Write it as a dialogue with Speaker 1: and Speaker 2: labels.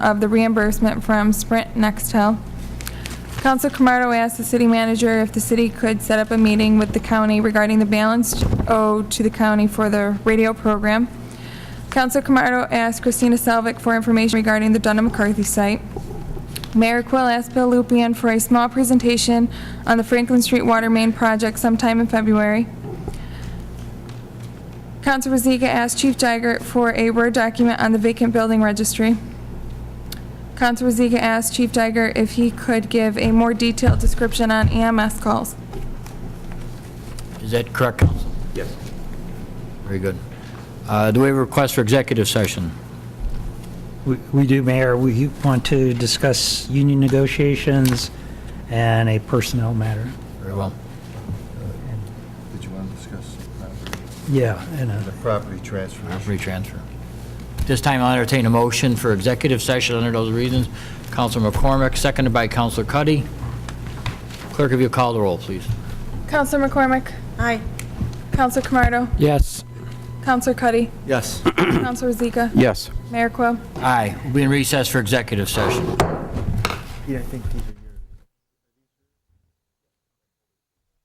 Speaker 1: of the reimbursement from Sprint Nextel. Council Camardo asked the city manager if the city could set up a meeting with the county regarding the balance owed to the county for the radio program. Council Camardo asked Christina Selvik for information regarding the Dunham McCarthy site. Mayor Quill asked Bill Lupien for a small presentation on the Franklin Street Water Main Project sometime in February. Council Bazika asked Chief Jaggert for a Word document on the vacant building registry. Council Bazika asked Chief Jaggert if he could give a more detailed description on EMS calls.
Speaker 2: Is that correct, Counsel?
Speaker 3: Yes.
Speaker 2: Very good. Uh, Do we have a request for executive session?
Speaker 4: We we do, Mayor. We want to discuss union negotiations and a personnel matter.
Speaker 2: Very well.
Speaker 5: Did you want to discuss property-
Speaker 4: Yeah, and
Speaker 5: the
Speaker 4: a
Speaker 5: property transfer?
Speaker 2: Free transfer. This time, I'll entertain a motion for executive session under those reasons. Counselor McCormick, seconded by Counselor Cuddy. Clerk, if you call the roll, please.
Speaker 1: Council McCormick?
Speaker 6: Aye.
Speaker 1: Council Camardo?
Speaker 2: Yes.
Speaker 1: Council Cuddy?
Speaker 5: Yes.
Speaker 1: Council Bazika?
Speaker 3: Yes.
Speaker 1: Mayor Quill?
Speaker 2: Aye. We'll be in recess for executive session.
Speaker 5: Yeah, I think these are.